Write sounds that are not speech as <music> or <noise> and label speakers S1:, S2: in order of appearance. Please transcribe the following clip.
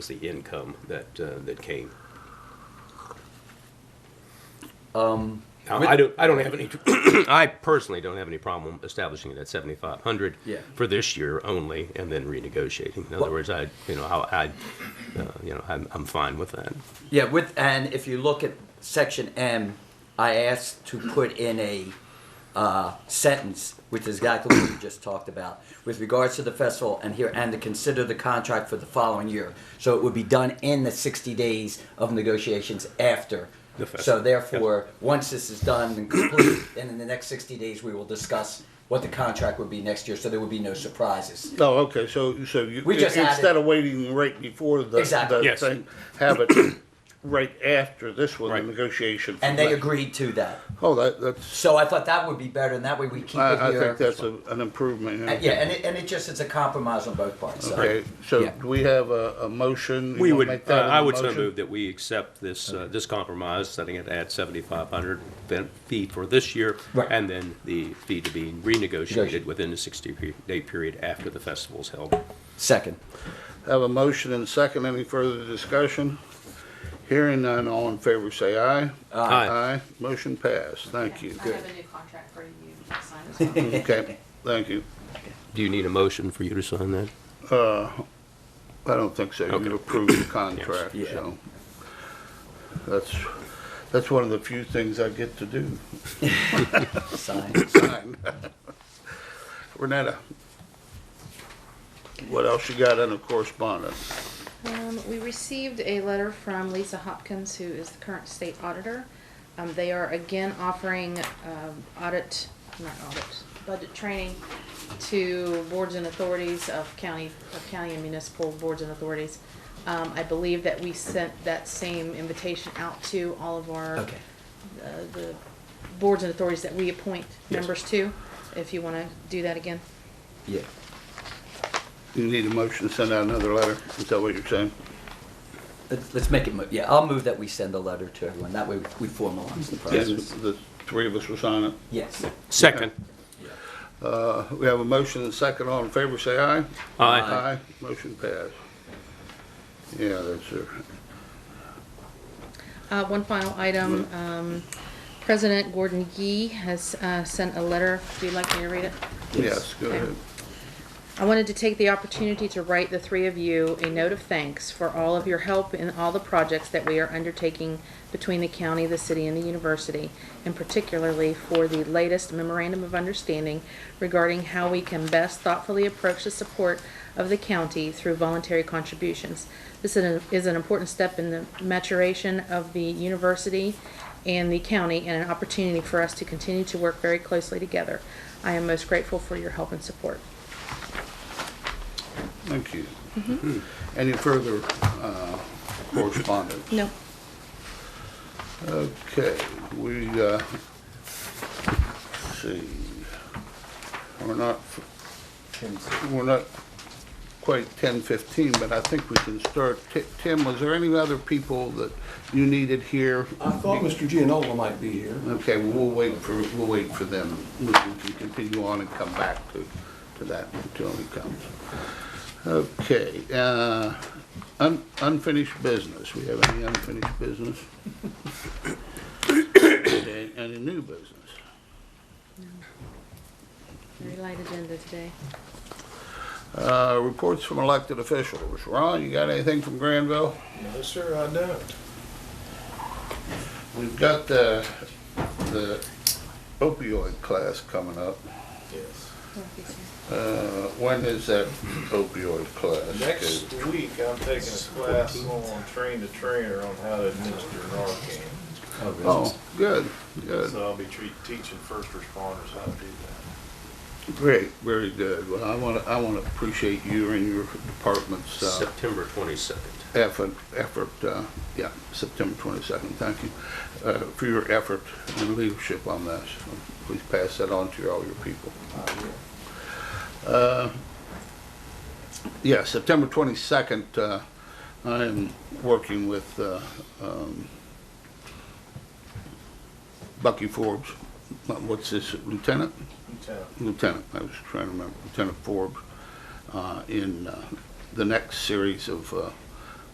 S1: was the income that, uh, that came. Um. I don't, I don't have any, <clears throat> I personally don't have any problem establishing it at seventy-five hundred.
S2: Yeah.
S1: For this year only, and then renegotiating. In other words, I, you know, how I, uh, you know, I'm, I'm fine with that.
S2: Yeah, with, and if you look at section M, I asked to put in a uh, sentence, which is exactly what you just talked about, with regards to the festival and here, and to consider the contract for the following year. So it would be done in the 60 days of negotiations after.
S1: The
S2: So
S1: festival, yes.
S2: therefore, once this is done and complete, then in the next 60 days, we will discuss what the contract would be next year, so there would be no surprises.
S3: Oh, okay, so, so you,
S2: We just
S3: instead
S2: added-
S3: of waiting right before the,
S2: Exactly.
S3: the
S1: Yes.
S3: thing, have it <coughs> right after this one, the
S1: Right.
S3: negotiation. for
S2: And they
S3: that.
S2: agreed to that.
S3: Oh, that, that's,
S2: So I thought that would be better, and that way we keep it
S3: I, I
S2: here.
S3: think that's a- an improvement.
S2: And- Uh, Yeah, and it, and it just, it's a compromise on both parts, so.
S3: Okay, so
S2: Yeah.
S3: do we have a, a motion? You
S1: We
S3: wanna
S1: would,
S3: make
S1: uh,
S3: that in
S1: I
S3: a
S1: would so
S3: motion?
S1: move that we accept this, uh, this compromise, setting it at seventy-five hundred fee for this year,
S2: Right.
S1: and then the fee to be
S2: Negotiate.
S1: renegotiated within the sixty-day period after the festival's held.
S2: Second.
S3: Have a motion and second, any further discussion? Hearing none, all in favor say aye.
S1: Aye.
S3: Aye, motion passed, thank you.
S4: I have a new contract for you to sign as well.
S3: Okay, thank you.
S1: Do you need a motion for you to sign that?
S3: Uh, I don't think so.
S1: Okay.
S3: You approved
S1: <coughs>
S3: the contract,
S2: Yes. Yeah.
S3: so. That's, that's one of the few things I get to do. <coughs>
S2: <clears throat> Sign.
S3: Sign. Renetta, what else you got under correspondence?
S4: Um, we received a letter from Lisa Hopkins, who is the current state auditor. Um, they are again offering, um, audit, not audit, budget training to boards and authorities of county, of county and municipal boards and authorities. Um, I believe that we sent that same invitation out to all of our
S2: Okay.
S4: uh, the boards and authorities that we appoint
S1: Yes.
S4: members to, if you wanna do that again.
S2: Yeah.
S3: You need a motion to send out another letter? Is that what you're saying?
S2: Let's, let's make it, mo- yeah, I'll move that we send a letter to everyone. That way we formalize the
S3: Yes.
S2: process.
S3: The three of us will sign it.
S2: Yes.
S1: Second.
S3: Uh, We have a motion and second. All in favor, say aye.
S1: Aye.
S2: Aye.
S3: Aye, motion passed. Yeah, that's it.
S4: Uh, one final item, um, President Gordon Gee has, uh, sent a letter, do you like me to read it?
S3: Yes, go
S4: Okay.
S3: ahead.
S4: I wanted to take the opportunity to write the three of you a note of thanks for all of your help in all the projects that we are undertaking between the county, the city, and the university, and particularly for the latest memorandum of understanding regarding how we can best thoughtfully approach the support of the county through voluntary contributions. This is an- is an important step in the maturation of the university and the county, and an opportunity for us to continue to work very closely together. I am most grateful for your help and support.
S3: Thank you. Any further uh, correspondence?
S4: No.
S3: Okay, we, uh, let's see, we're not, we're not quite ten fifteen, but I think we can start. Ti- Tim, was there any other people that you needed here?
S5: I thought Mr. Gianola might be here.
S3: Okay, we'll wait for, we'll wait for them. We can can continue on and come back to, to that until he comes. Okay, uh, un- unfinished business. We have any unfinished business? Okay, Any new business?
S4: Very light agenda today.
S3: Uh, reports from elected officials. Ron, you got anything from Granville?
S6: No, sir, I don't.
S3: We've got the, the opioid class coming up.
S6: Yes.
S3: Uh, when is that opioid class?
S6: Next week, I'm taking a class on train the trainer on how to administer Narcan.
S3: Oh, good, good.
S6: So I'll be treat, teaching first responders how to do that.
S3: Great, very good. Well, I want to, I want to appreciate you and your department's uh,
S1: September twenty-second.
S3: effort, effort, uh, yeah, September 22nd, thank you, uh, for your effort and leadership on this. Please pass that on to your- all your people. Uh, Yeah, September 22nd, uh, I am working with uh, um, Bucky Forbes, Uh, what's his lieutenant?
S6: Lieutenant,
S3: Lieutenant, I was trying to remember, Lieutenant Forbes, uh, in uh, the next series of uh,